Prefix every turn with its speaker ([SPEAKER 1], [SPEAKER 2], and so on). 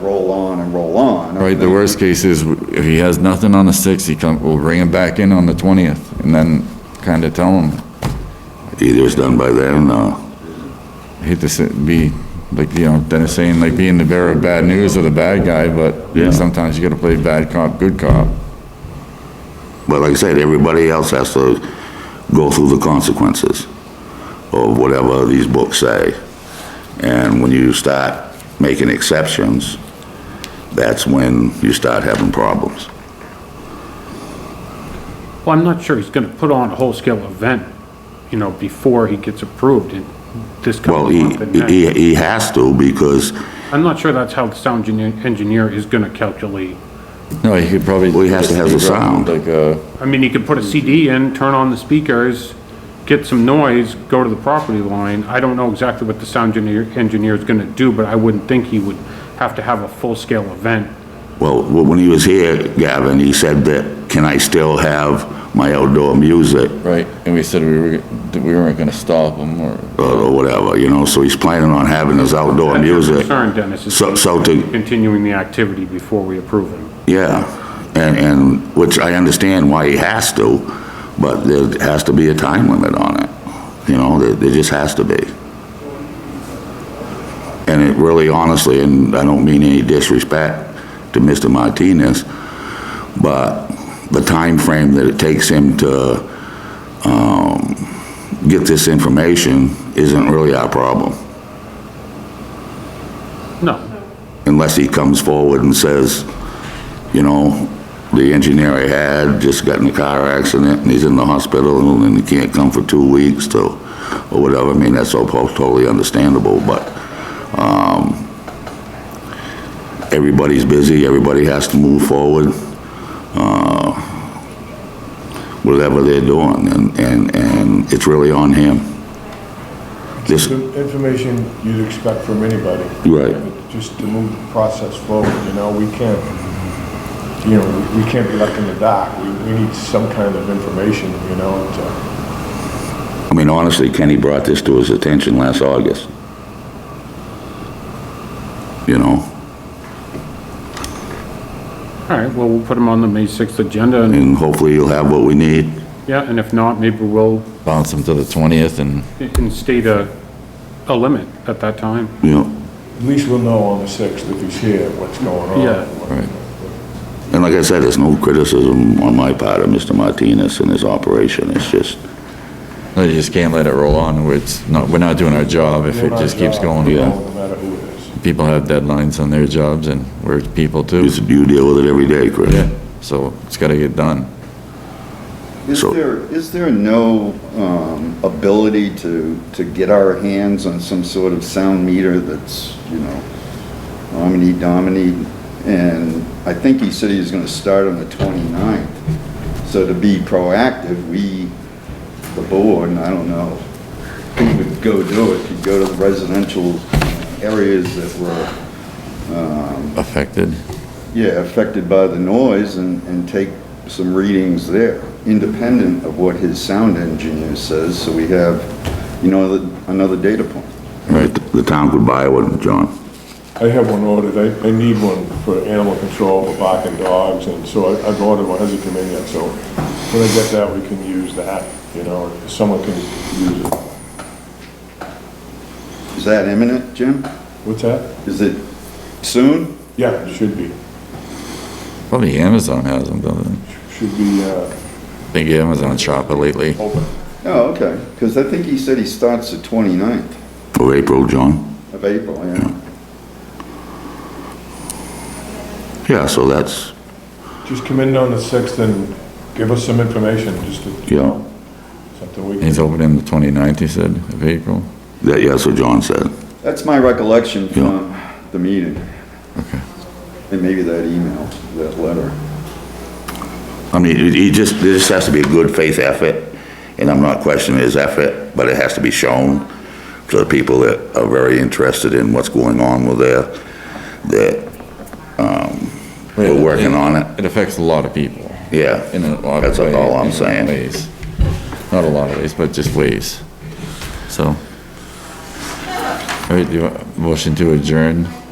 [SPEAKER 1] roll on and roll on.
[SPEAKER 2] Right, the worst case is if he has nothing on the 6th, he come, we'll bring him back in on the 20th and then kind of tell him,
[SPEAKER 3] Either it's done by then or,
[SPEAKER 2] I hate to say- be, like, you know, Dennis saying, like, being the bearer of bad news or the bad guy,
[SPEAKER 3] Yeah.
[SPEAKER 2] but sometimes you gotta play bad cop, good cop.
[SPEAKER 3] but like I said, everybody else has to go through the consequences of whatever these books say. And when you start making exceptions, that's when you start having problems.
[SPEAKER 4] Well, I'm not sure he's gonna put on a whole-scale event, you know, before he gets approved in this
[SPEAKER 3] Well,
[SPEAKER 4] coming
[SPEAKER 3] he,
[SPEAKER 4] month and next.
[SPEAKER 3] he, he has to because
[SPEAKER 4] I'm not sure that's how the sound engineer, engineer is gonna calculate.
[SPEAKER 2] No, he could probably.
[SPEAKER 3] Well, he has to have the sound.
[SPEAKER 2] Like, uh,
[SPEAKER 4] I mean, he could put a CD in, turn on the speakers, get some noise, go to the property line. I don't know exactly what the sound engineer, engineer is gonna do, but I wouldn't think he would have to have a full-scale event.
[SPEAKER 3] Well, wh- when he was here, Gavin, he said that, can I still have my outdoor music
[SPEAKER 2] right, and we said we were, that we weren't gonna stop him or,
[SPEAKER 3] or or whatever, you know? So he's planning on having his outdoor
[SPEAKER 4] That's your
[SPEAKER 3] music.
[SPEAKER 4] Concern, Dennis, is
[SPEAKER 3] So, so to,
[SPEAKER 4] continuing the activity before we approve him.
[SPEAKER 3] yeah, and, and, which I understand why he has to, but there has to be a time limit on it. You know, there, there just has to be. And it really honestly, and I don't mean any disrespect to Mr. Martinez, but the time frame that it takes him to, um, get this information isn't really our problem.
[SPEAKER 4] No,
[SPEAKER 3] unless he comes forward and says, you know, the engineer I had just got in a car accident and he's in the hospital and he can't come for two weeks to, or whatever, I mean, that's all po- totally understandable, but, um, everybody's busy, everybody has to move forward, uh, whatever they're doing, and, and, and it's really on him. This,
[SPEAKER 5] The Information you'd expect from anybody.
[SPEAKER 3] Right.
[SPEAKER 5] Just to move the process forward, you know, we can't, you know, we we can't be left in the dark. We, we need some kind of information, you know, to,
[SPEAKER 3] I mean, honestly, Kenny brought this to his attention last August. You know,
[SPEAKER 4] all right, well, we'll put him on the May 6th agenda and
[SPEAKER 3] and hopefully you'll have what we need.
[SPEAKER 4] Yeah, and if not, maybe we'll
[SPEAKER 2] bounce him to the 20th and,
[SPEAKER 4] instate a, a limit at that time.
[SPEAKER 3] You know,
[SPEAKER 5] at least we'll know on the 6th if he's here, what's going on.
[SPEAKER 4] Yeah.
[SPEAKER 2] right.
[SPEAKER 3] and like I said, there's no criticism on my part of Mr. Martinez and his operation. It's just,
[SPEAKER 2] No, you just can't let it roll on where it's not, we're not doing our job if
[SPEAKER 5] We're
[SPEAKER 2] it
[SPEAKER 5] not
[SPEAKER 2] just keeps
[SPEAKER 5] involved,
[SPEAKER 2] going.
[SPEAKER 3] Yeah.
[SPEAKER 5] No matter who it is.
[SPEAKER 2] People have deadlines on their jobs and we're people too.
[SPEAKER 3] it's, you deal with it every day,
[SPEAKER 2] Yeah,
[SPEAKER 3] Chris.
[SPEAKER 2] so it's gotta get done.
[SPEAKER 1] Is
[SPEAKER 3] So-
[SPEAKER 1] there, is there no um, ability to, to get our hands on some sort of sound meter that's, you know, omni domini? And I think he said he was gonna start on the 29th. So to be proactive, we, the board, and I don't know who would go do it, could go to the residential areas that were
[SPEAKER 2] Affected.
[SPEAKER 1] yeah, affected by the noise and, and take some readings there, independent of what his sound engineer says, so we have, you know, the- another data point.
[SPEAKER 3] Right, the town could buy one, John.
[SPEAKER 5] I have one ordered, I, I need one for animal control, for barking dogs, and so I- I've ordered one, hasn't come in yet, so when I get that, we can use that, you know, someone can use it.
[SPEAKER 1] Is that imminent, Jim?
[SPEAKER 5] What's that?
[SPEAKER 1] Is it soon?
[SPEAKER 5] Yeah, it should be,
[SPEAKER 2] Probably Amazon has them, doesn't it?
[SPEAKER 5] should be, uh,
[SPEAKER 2] Think Amazon shop it lately.
[SPEAKER 5] open.
[SPEAKER 1] Oh, okay, because I think he said he starts the 29th
[SPEAKER 3] For April, John.
[SPEAKER 1] of April, yeah.
[SPEAKER 3] Yeah, so that's,
[SPEAKER 5] Just come in on the 6th and give us some information, just to, you
[SPEAKER 3] Yeah.
[SPEAKER 5] know, something we
[SPEAKER 2] He's
[SPEAKER 5] can...
[SPEAKER 2] opening the 29th, he said, of April.
[SPEAKER 3] that, yeah, so John said.
[SPEAKER 1] That's my recollection from
[SPEAKER 3] Yeah.
[SPEAKER 1] the meeting. And maybe that email, that letter.
[SPEAKER 3] I mean, it, it just, there just has to be a good faith effort, and I'm not questioning his effort, but it has to be shown to the people that are very interested in what's going on with there, that we're working on it.
[SPEAKER 2] It affects a lot of people
[SPEAKER 3] Yeah,
[SPEAKER 2] in a lot of ways.
[SPEAKER 3] That's all I'm saying.
[SPEAKER 2] Ways. Not a lot of ways, but just ways. So. All right, do you want, motion to adjourn?